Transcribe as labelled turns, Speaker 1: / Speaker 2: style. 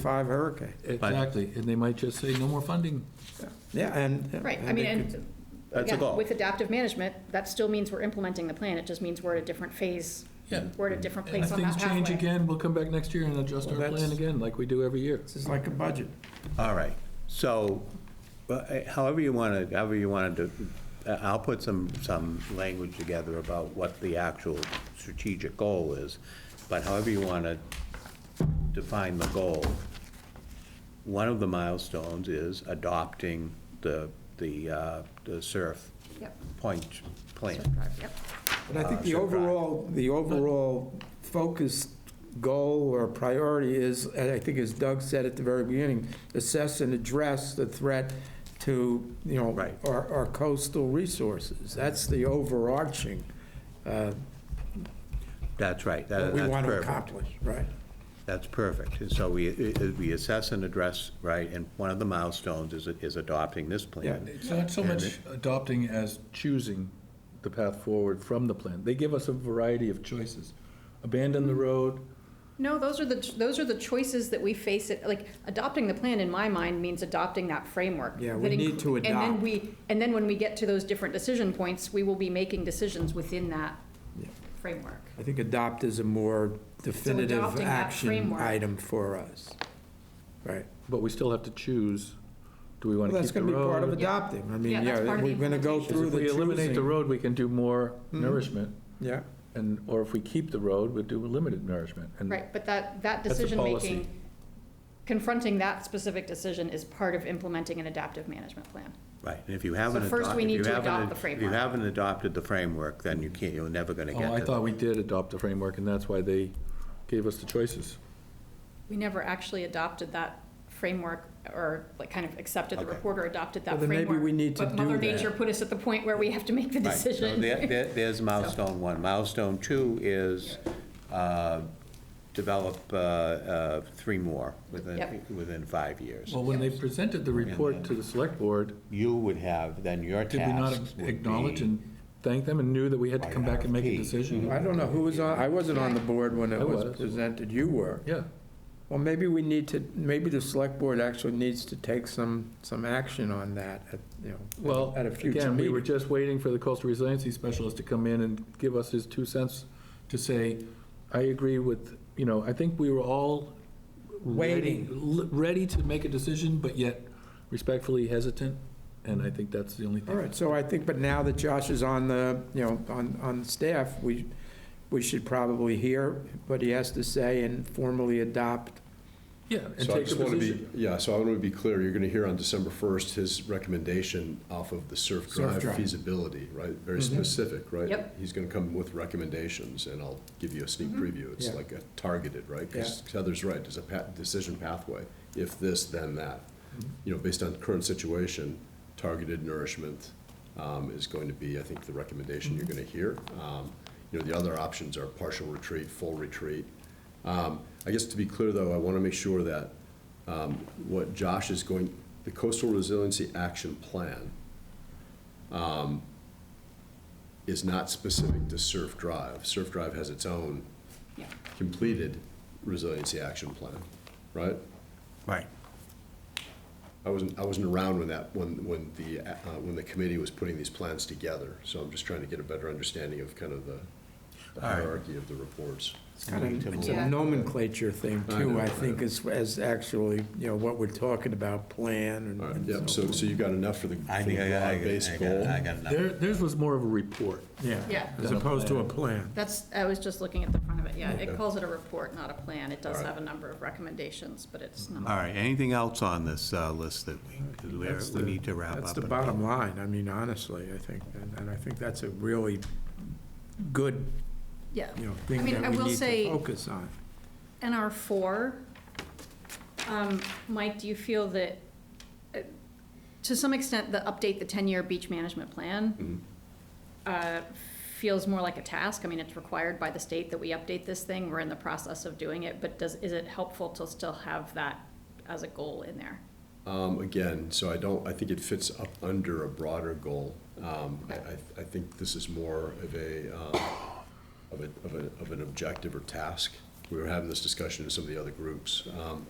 Speaker 1: five hurricane.
Speaker 2: Exactly, and they might just say, no more funding.
Speaker 1: Yeah, and.
Speaker 3: Right, I mean,
Speaker 1: they could-
Speaker 3: and.
Speaker 4: That's a
Speaker 3: again,
Speaker 4: goal.
Speaker 3: With adaptive management, that still means we're implementing the plan, it just means we're at a different phase.
Speaker 2: Yeah.
Speaker 3: We're at a different
Speaker 2: And if
Speaker 3: place on
Speaker 2: things
Speaker 3: that
Speaker 2: change
Speaker 3: pathway.
Speaker 2: again, we'll come back next year and adjust our
Speaker 1: Well,
Speaker 2: plan
Speaker 1: that's-
Speaker 2: again, like we do every year.
Speaker 1: This is like a budget.
Speaker 4: All right, so, but, eh, however you want to, however you want to, I'll put some, some language together about what the actual strategic goal is, but however you want to define the goal, one of the milestones is adopting the, the, uh, the SURF
Speaker 3: Yep.
Speaker 4: point plan.
Speaker 3: Yep.
Speaker 1: But I think
Speaker 4: Uh,
Speaker 1: the
Speaker 4: sure, right.
Speaker 1: overall, the overall focus, goal, or priority is, and I think as Doug said at the very beginning, assess and address the threat to, you know,
Speaker 4: Right.
Speaker 1: our our coastal resources. That's the overarching, uh,
Speaker 4: That's right, that,
Speaker 1: that we
Speaker 4: that's
Speaker 1: want to
Speaker 4: perfect.
Speaker 1: accomplish, right?
Speaker 4: That's perfect. And so we, we assess and address, right, and one of the milestones is, is adopting this plan.
Speaker 2: It's not so much adopting as choosing the path forward from the plan. They give us a variety of choices. Abandon
Speaker 1: Mm-hmm.
Speaker 2: the road,
Speaker 3: No, those are the, those are the choices that we face, it, like, adopting the plan, in my mind, means adopting that framework.
Speaker 1: Yeah, we
Speaker 3: that
Speaker 1: need
Speaker 3: inclu-
Speaker 1: to
Speaker 3: And
Speaker 1: adopt.
Speaker 3: then we, and then when we get to those different decision points, we will be making decisions within that
Speaker 1: Yeah.
Speaker 3: framework.
Speaker 1: I think adopt is a more definitive
Speaker 3: adopting that
Speaker 1: action
Speaker 3: framework.
Speaker 1: item for us. Right.
Speaker 2: but we still have to choose, do we want
Speaker 1: Well,
Speaker 2: to
Speaker 1: that's
Speaker 2: keep the
Speaker 1: going to be part of
Speaker 2: road?
Speaker 1: adopting. I mean,
Speaker 3: Yeah, that's part
Speaker 1: yeah,
Speaker 3: of the
Speaker 1: we're going to go
Speaker 3: implementation.
Speaker 1: through
Speaker 2: If
Speaker 1: the
Speaker 2: we eliminate the
Speaker 1: choosing. Mm-hmm.
Speaker 2: road, we can do more nourishment,
Speaker 1: Yeah,
Speaker 2: and, or if we keep the road, we do limited nourishment. and
Speaker 3: Right, but that, that
Speaker 2: That's a
Speaker 3: decision-making,
Speaker 2: policy.
Speaker 3: confronting that specific decision is part of implementing an adaptive management plan.
Speaker 4: Right, and if you haven't.
Speaker 3: So first
Speaker 4: adopt-
Speaker 3: we
Speaker 4: if
Speaker 3: need
Speaker 4: you
Speaker 3: to
Speaker 4: haven't
Speaker 3: adopt
Speaker 4: ad-
Speaker 3: the
Speaker 4: If you
Speaker 3: framework.
Speaker 4: haven't adopted the framework, then you can't, you're never gonna get to.
Speaker 2: Oh, I
Speaker 4: the-
Speaker 2: thought we did adopt the framework, and that's why they gave us the choices.
Speaker 3: We never actually adopted that framework, or like kind of accepted the
Speaker 4: Okay.
Speaker 3: report or adopted
Speaker 1: Well,
Speaker 3: that
Speaker 1: then
Speaker 3: framework.
Speaker 1: maybe we need to
Speaker 3: But Mother
Speaker 1: do that.
Speaker 3: Nature put us at the point where we have to make the
Speaker 4: Right, so
Speaker 3: decision.
Speaker 4: there- there- There's milestone one. Milestone two is uh, develop uh, uh, three more within,
Speaker 3: Yep.
Speaker 4: within five years.
Speaker 2: Well, when they presented the report to the select board,
Speaker 4: You would have, then your
Speaker 2: did we not
Speaker 4: task would
Speaker 2: acknowledge
Speaker 4: be-
Speaker 2: and thank them and knew that we had to
Speaker 4: By
Speaker 2: come back and make a
Speaker 4: RFP.
Speaker 2: decision?
Speaker 1: I
Speaker 4: Mm-hmm.
Speaker 1: don't know who was on, I wasn't on the board when
Speaker 2: I
Speaker 1: it was
Speaker 2: was.
Speaker 1: presented, you were.
Speaker 2: Yeah,
Speaker 1: Well, maybe we need to, maybe the select board actually needs to take some, some action on that, at, you know,
Speaker 2: well,
Speaker 1: at a future
Speaker 2: again, we were
Speaker 1: meeting.
Speaker 2: just waiting for the coastal resiliency specialist to come in and give us his two cents to say, I agree with, you know, I think we were all ready- l- Ready to make a decision, but yet respectfully hesitant, and I think that's the only
Speaker 1: All
Speaker 2: thing.
Speaker 1: right, so I think, but now that Josh is on the, you know, on, on staff, we, we should probably hear what he has to say and formally adopt.
Speaker 2: Yeah, and
Speaker 5: So I
Speaker 2: take a
Speaker 5: just want to
Speaker 2: position.
Speaker 5: be, yeah, so I want to be clear, you're going to hear on December 1st his recommendation off of the Surf
Speaker 1: Surf
Speaker 5: Drive
Speaker 1: Drive.
Speaker 5: feasibility, right? Very specific, right?
Speaker 3: Yep.
Speaker 5: He's going to come with recommendations, and I'll give you a sneak preview. It's
Speaker 1: Yeah.
Speaker 5: like a targeted, right? Because Heather's right, there's a pa- decision pathway, if this, then that. You know, based on current situation, targeted nourishment um, is going to be, I think, the recommendation you're going to hear. Um, You know, the other options are partial retreat, full retreat. Um, I guess to be clear, though, I want to make sure that um, what Josh is going, the coastal resiliency action plan um, is not specific to Surf Drive. Surf Drive has its own
Speaker 3: Yeah.
Speaker 5: completed resiliency action plan, right?
Speaker 4: Right.
Speaker 5: I wasn't, I wasn't around when that, when, when the, uh, when the committee was putting these plans together, so I'm just trying to get a better understanding of kind of the the
Speaker 4: right.
Speaker 5: hierarchy of the reports.
Speaker 1: It's kind of, it's
Speaker 3: Um, Yeah.
Speaker 1: a nomenclature thing
Speaker 5: I
Speaker 1: too,
Speaker 5: know,
Speaker 1: I
Speaker 5: I
Speaker 1: think,
Speaker 5: know.
Speaker 1: as, as actually, you know, what we're talking about, plan
Speaker 5: All right,
Speaker 1: and.
Speaker 5: yep, so, so you've got enough for the for
Speaker 4: I
Speaker 5: the
Speaker 4: think I got, I
Speaker 5: broad-based
Speaker 4: got,
Speaker 5: goal?
Speaker 4: I got enough.
Speaker 2: Their- Theirs was more of a report.
Speaker 1: Yeah,
Speaker 3: Yeah.
Speaker 1: as opposed to a plan.
Speaker 3: That's, I was just looking at the front of it, yeah, it
Speaker 5: Okay.
Speaker 3: calls it a report, not a plan, it does
Speaker 5: All right.
Speaker 3: have a number of recommendations, but it's
Speaker 4: All
Speaker 3: not.
Speaker 4: right, anything else on this uh, list that we, 'cause we're-
Speaker 1: That's
Speaker 4: we
Speaker 1: the-
Speaker 4: need to wrap up?
Speaker 1: That's the
Speaker 4: and-
Speaker 1: bottom line, I mean, honestly, I think, and, and I think that's a really good,
Speaker 3: Yeah,
Speaker 1: you know, thing
Speaker 3: mean, I
Speaker 1: that we
Speaker 3: will
Speaker 1: need
Speaker 3: say-
Speaker 1: to focus on.
Speaker 3: NR four, um, Mike, do you feel that, uh, to some extent, the update the ten-year beach management plan uh, feels more like a task? I mean, it's required by the state that we update this thing, we're in the process of doing it, but does, is it helpful to still have that as a goal in there?
Speaker 5: Um, again, so I don't, I think it fits up under a broader goal. Um, I, I, I think this is more of a, um, of a, of a, of an objective or task. We were having this discussion in some of the other groups. Um,